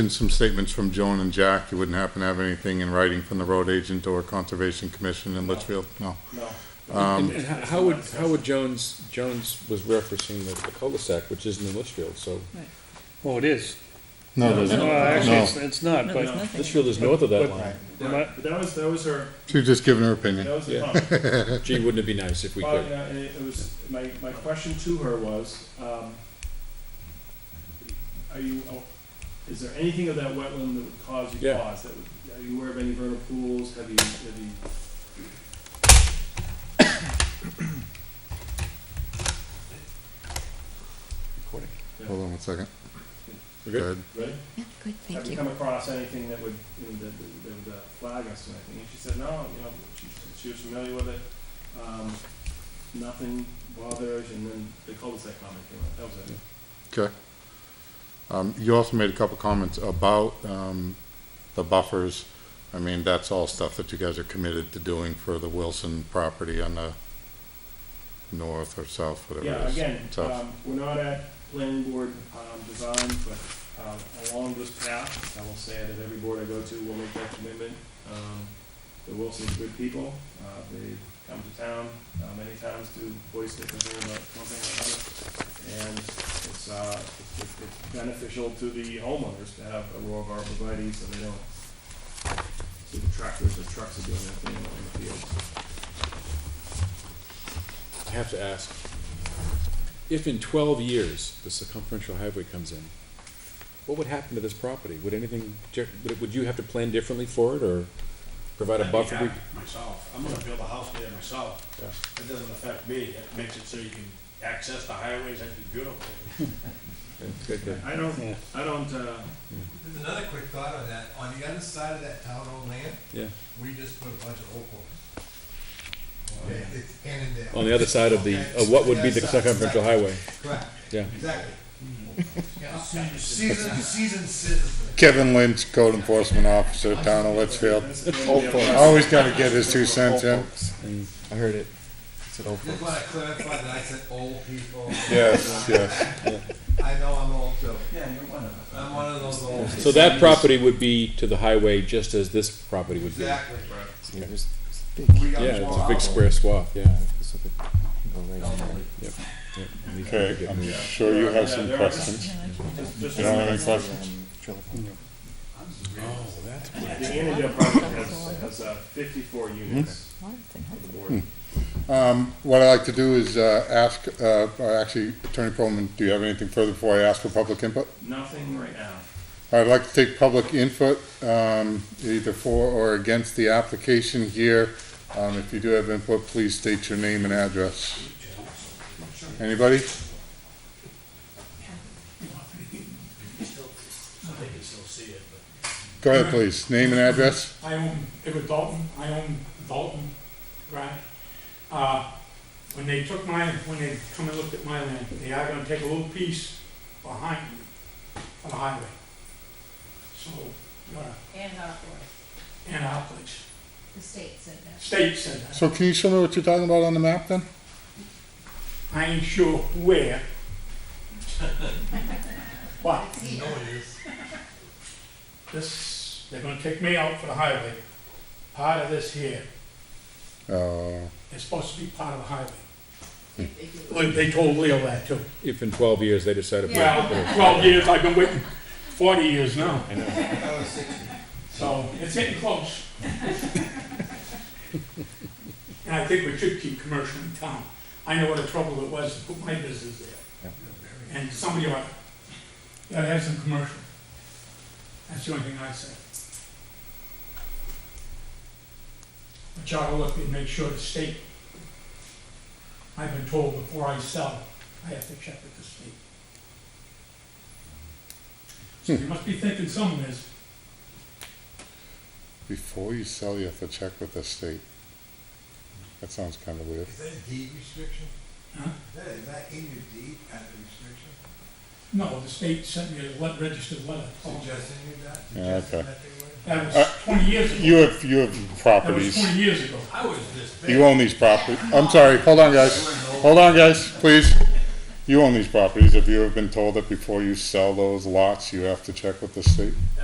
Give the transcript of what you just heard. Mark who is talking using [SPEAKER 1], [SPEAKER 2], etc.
[SPEAKER 1] In some statements from Joan and Jack, you wouldn't happen to have anything in writing from the road agent or Conservation Commission in Litchfield? No.
[SPEAKER 2] No.
[SPEAKER 3] Um,
[SPEAKER 4] And and how how would, how would Jones, Jones was referencing the the cul-de-sac, which isn't in Litchfield, so
[SPEAKER 5] Well, it is.
[SPEAKER 1] No, does
[SPEAKER 5] Well, actually,
[SPEAKER 1] No.
[SPEAKER 5] it's, it's not,
[SPEAKER 6] No, there's
[SPEAKER 5] but,
[SPEAKER 6] nothing.
[SPEAKER 4] Litchfield is north of that
[SPEAKER 5] But-
[SPEAKER 4] line.
[SPEAKER 2] Right, but that was, that was her,
[SPEAKER 1] She's just giving her
[SPEAKER 2] that
[SPEAKER 1] opinion.
[SPEAKER 2] was the
[SPEAKER 4] Yeah.
[SPEAKER 2] comment.
[SPEAKER 4] Gee, wouldn't it be nice if we
[SPEAKER 2] Well,
[SPEAKER 4] could?
[SPEAKER 2] yeah, and it it was, my, my question to her was, um, are you, oh, is there anything of that wetland that would cause you
[SPEAKER 4] Yeah.
[SPEAKER 2] pause? That would- Are you aware of any vernal pools? Have you, have you?
[SPEAKER 1] Hold on one second.
[SPEAKER 4] We're
[SPEAKER 1] Go
[SPEAKER 4] good?
[SPEAKER 1] ahead.
[SPEAKER 2] Ready?
[SPEAKER 6] Yeah, good,
[SPEAKER 2] have
[SPEAKER 6] thank
[SPEAKER 2] you
[SPEAKER 6] you.
[SPEAKER 2] come across anything that would, you know, that, that- that would uh, flag us to anything? And she said, no, you know, she, she was familiar with it, um, nothing bothers, and then the cul-de-sac comment came up, that was it.
[SPEAKER 1] Okay. Um, you also made a couple comments about, um, the buffers. I mean, that's all stuff that you guys are committed to doing for the Wilson property on the north or south, whatever
[SPEAKER 2] Yeah,
[SPEAKER 1] it is.
[SPEAKER 2] again,
[SPEAKER 1] South.
[SPEAKER 2] um, we're not at planning board, um, design, but, um, along this path, I will say that every board I go to will make that commitment. Um, the Wilsons are good people, uh, they come to town, uh, many times to voice their concern about one thing or another. And it's, uh, it- it- it's beneficial to the homeowners to have a row of arborvitae, so they don't, see the tractors or trucks are doing that thing in the field.
[SPEAKER 4] I have to ask, if in twelve years the circumferential highway comes in, what would happen to this property? Would anything, Jer- would would you have to plan differently for it, or provide a
[SPEAKER 7] I'd be
[SPEAKER 4] buffer?
[SPEAKER 7] happy
[SPEAKER 4] be-
[SPEAKER 7] Myself, I'm gonna build a house there myself.
[SPEAKER 4] Yeah.
[SPEAKER 7] It doesn't affect me, it makes it so you can access the highways, that'd be beautiful.
[SPEAKER 4] Yeah, good, good.
[SPEAKER 2] I don't,
[SPEAKER 5] Yeah.
[SPEAKER 2] I don't, uh,
[SPEAKER 8] There's another quick thought on that. On the other side of that town-owned land,
[SPEAKER 4] Yeah,
[SPEAKER 8] we just put a bunch of oak homes. Okay, It's Annandale.
[SPEAKER 4] on the other side of the,
[SPEAKER 8] Okay,
[SPEAKER 4] of what would
[SPEAKER 8] the
[SPEAKER 4] be
[SPEAKER 8] other
[SPEAKER 4] the
[SPEAKER 8] side,
[SPEAKER 4] circumferential highway,
[SPEAKER 8] Correct,
[SPEAKER 4] yeah.
[SPEAKER 8] exactly. Seasoned, seasoned citizen.
[SPEAKER 1] Kevin Lynch, Code Enforcement Officer, Town of Litchfield. Always gotta get his two cents in.
[SPEAKER 3] I heard it. It's an old
[SPEAKER 8] Just wanna clarify that I said old people.
[SPEAKER 1] Yes, yes.
[SPEAKER 8] I know I'm old too. Yeah, you're one of us. I'm one of those old.
[SPEAKER 4] So that property would be to the highway just as this property would be.
[SPEAKER 8] Exactly.
[SPEAKER 3] Yeah, there's it's big.
[SPEAKER 8] We got
[SPEAKER 4] Yeah, it's a
[SPEAKER 8] more
[SPEAKER 4] big
[SPEAKER 8] hours.
[SPEAKER 4] square swath, yeah.
[SPEAKER 3] It's like a- you know, right here.
[SPEAKER 1] Okay, I'm sure you have some questions.
[SPEAKER 2] just, just.
[SPEAKER 1] You don't have any questions?
[SPEAKER 3] Um, drill-
[SPEAKER 2] The Annandale project has, has uh, fifty-four units for the
[SPEAKER 1] Hmm.
[SPEAKER 2] board.
[SPEAKER 1] Um, what I'd like to do is, uh, ask, uh, or actually, Attorney Pearlman, do you have anything further before I ask for public input?
[SPEAKER 2] Nothing right now.
[SPEAKER 1] I'd like to take public input, um, either for or against the application here. Um, if you do have input, please state your name and address. Anybody?
[SPEAKER 7] So they can still see it, but.
[SPEAKER 1] Go ahead, please. Name and address.
[SPEAKER 9] I own, it was Dalton, I own Dalton Ranch. Uh, when they took my, when they come and looked at my land, they are gonna take a little piece behind me for the highway. So, uh,
[SPEAKER 6] And our board,
[SPEAKER 9] and our place,
[SPEAKER 6] the state said that.
[SPEAKER 9] state said that.
[SPEAKER 1] So can you show me what you're talking about on the map then?
[SPEAKER 9] I ain't sure where. But
[SPEAKER 8] No, it is.
[SPEAKER 9] this, they're gonna take me out for the highway. Part of this here
[SPEAKER 1] Uh,
[SPEAKER 9] is supposed to be part of the highway. Like, they told Leo that too.
[SPEAKER 4] If in twelve years they decide to put
[SPEAKER 9] Well,
[SPEAKER 4] it.
[SPEAKER 9] twelve years, I've been waiting forty years now,
[SPEAKER 8] I was sixty.
[SPEAKER 9] so it's getting close. And I think we should keep commercial in town. I know what a trouble it was to put my business there. And somebody ought, ought to have some commercial. That's the only thing I say. But y'all gotta look and make sure the state, I've been told before I sell, I have to check with the state.
[SPEAKER 1] Hmm.
[SPEAKER 9] So you must be thinking something is,
[SPEAKER 1] before you sell, you have to check with the state. That sounds kind of weird.
[SPEAKER 8] Is that a deed restriction?
[SPEAKER 9] Huh?
[SPEAKER 8] Is that- Is that in your deed as a restriction?
[SPEAKER 9] no, the state sent me a le- registered letter.
[SPEAKER 8] Suggesting you that?
[SPEAKER 1] Yeah,
[SPEAKER 8] Suggesting
[SPEAKER 1] okay.
[SPEAKER 8] that they would?
[SPEAKER 9] That
[SPEAKER 1] Oh. Uh,
[SPEAKER 9] was twenty years ago.
[SPEAKER 1] You have, you have
[SPEAKER 9] That was
[SPEAKER 1] properties.
[SPEAKER 9] twenty years ago.
[SPEAKER 8] I was this big.
[SPEAKER 1] You own these properties. I'm sorry, hold on, guys. Hold on, guys, please. you own these properties, have you ever been told that before you sell those lots, you have to check with the state?